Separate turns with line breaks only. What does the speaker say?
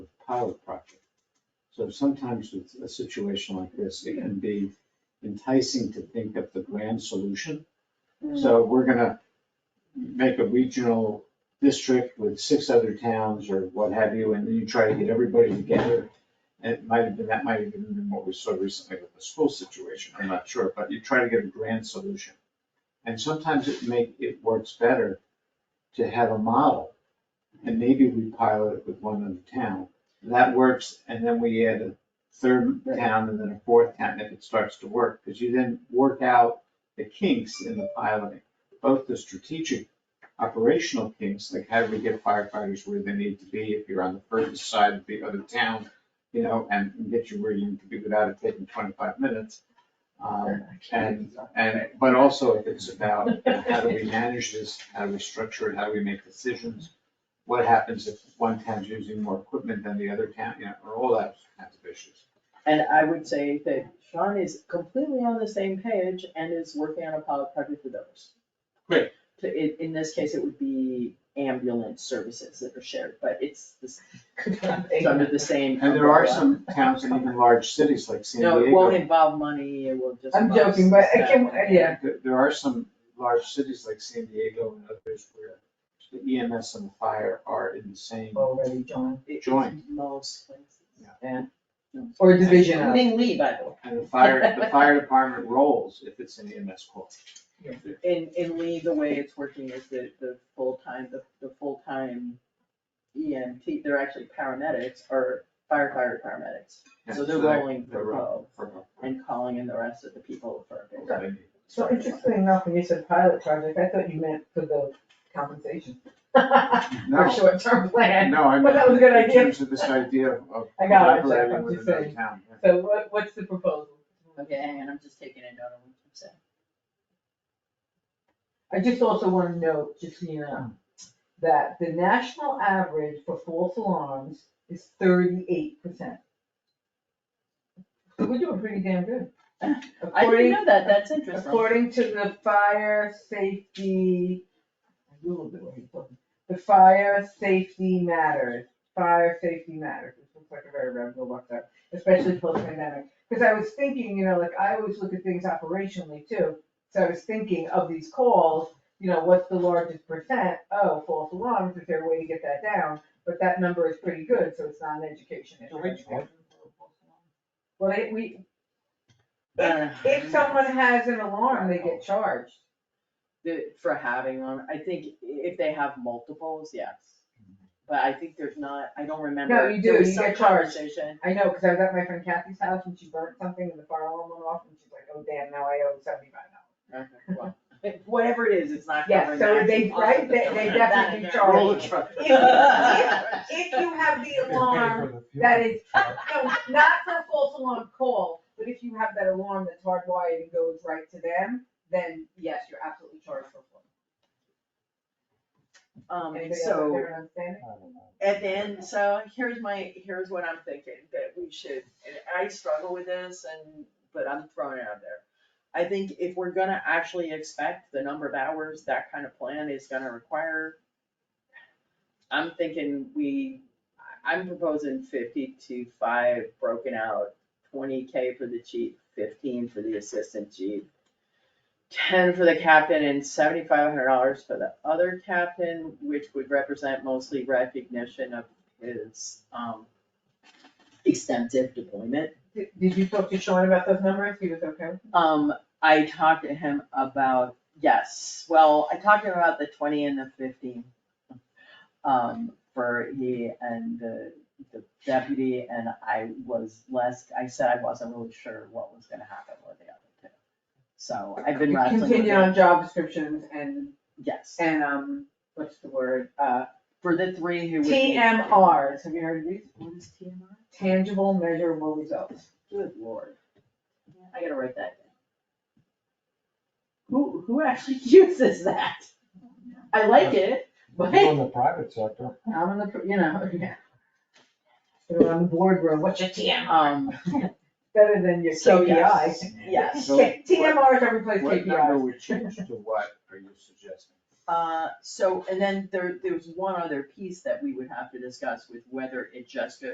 pilot project. So sometimes with a situation like this, it can be enticing to think of the grand solution. So we're gonna make a regional district with six other towns or what have you, and then you try to get everybody together. And It might have been, that might have been what we saw recently with the school situation, I'm not sure, but you try to get a grand solution. And sometimes it make, it works better to have a model, and maybe we pilot it with one other town. That works, and then we add a third town and then a fourth town if it starts to work, because you then work out the kinks in the piloting, both the strategic operational kinks, like how do we get firefighters where they need to be if you're on the furthest side of the other town, you know, and get you where you need to be without it taking twenty-five minutes. Um, and, and, but also if it's about how do we manage this, how do we structure it, how do we make decisions? What happens if one town's using more equipment than the other town, you know, or all that kinds of issues.
And I would say that Sean is completely on the same page and is working on a pilot project with others.
Great.
To, in, in this case, it would be ambulance services that are shared, but it's, the s- it's under the same
And there are
umbrella.
some towns and even large cities like San
No, it won't
Diego.
involve money, it will just.
I'm
involve
joking, but I
staff.
can, yeah,
There- There are some large cities like San Diego and others where the EMS and fire are in the same,
already, John,
It-
Joint.
Most places.
Yeah.
And,
or division of.
including Lee, by the way.
and the fire, the fire department rolls if it's an E EMS call.
In, in Lee, the way it's working is that the full-time, the, the full-time EMT, they're actually paramedics or firefighter paramedics. So they're
that-
rolling
they're
for
rolling
Bo
for-
and calling in the rest of the people for a bid.
for-
So interesting enough, when you said pilot project, I thought you meant for the compensation. For
No,
short-term plan.
no, I
But that was a good
mean, in
idea.
terms of this idea of
I got it,
collaborating
I'm
with
just
another
saying.
town.
So what, what's the proposal?
Okay, hang on, I'm just taking a note of what you said.
I just also wanna note, just so you know, that the national average for false alarms is thirty-eight percent. We're doing pretty damn good.
I
According-
didn't know that, that's interesting.
According to the fire safety, I Googled it when you told me. the fire safety matters, fire safety matters, this looks like a very reputable website, especially post-pandemic. Because I was thinking, you know, like, I always look at things operationally too, so I was thinking of these calls, you know, what's the largest percent? Oh, false alarms, is there a way to get that down? But that number is pretty good, so it's not an education issue. Well, they, we,
Uh,
if, if someone has an alarm, they get charged.
the- For having them, I think i- if they have multiples, yes.
Mm-hmm.
But I think there's not, I don't remember.
No, you do,
There was
you
some
get charged.
conversation.
I know, because I was at my friend Kathy's house and she burnt something and the fire alarm went off and she's like, oh damn, now I owe seventy-five dollars.
Okay, well, Whatever it is, it's not
Yeah,
covering that.
so they, right, they, they
That-
definitely
that-
charge.
Roll the
you.
truck.
If- If you have the alarm, that is, no, not for a false alarm call, but if you have that alarm that's hardwired and goes right to them, then yes, you're absolutely charged for it.
Um,
Anybody else have
so.
their understanding?
And then, so here's my, here's what I'm thinking, that we should, and I struggle with this and, but I'm throwing it out there. I think if we're gonna actually expect the number of hours that kind of plan is gonna require, I'm thinking we, I- I'm proposing fifty to five broken out, twenty K for the chief, fifteen for the assistant chief, ten for the captain and seventy-five hundred dollars for the other captain, which would represent mostly recognition of his, um, extensive deployment.
Did, did you talk to Sean about those numbers? He was okay?
Um, I talked to him about, yes, well, I talked to him about the twenty and the fifteen. Um, for he and the, the deputy, and I was less, I said I wasn't really sure what was gonna happen with the other two. So I've been wrestling with
Continue
it,
on job descriptions and,
yes.
and, um, what's the word, uh,
For the three who would. be-
TMRs, have you heard of these?
What is TMR?
tangible, measurable results.
Good lord. I gotta write that down. Who, who actually uses that? I like it, but,
You're in the private sector.
I'm in the, you know, yeah. So on the boardroom, what's your TM?
um,
Better than your
So,
KPI.
yes. yes.
So
K- TMRs are replaced
What number
KPIs.
would change to what are you suggesting?
uh, so, and then there, there was one other piece that we would have to discuss with whether it just goes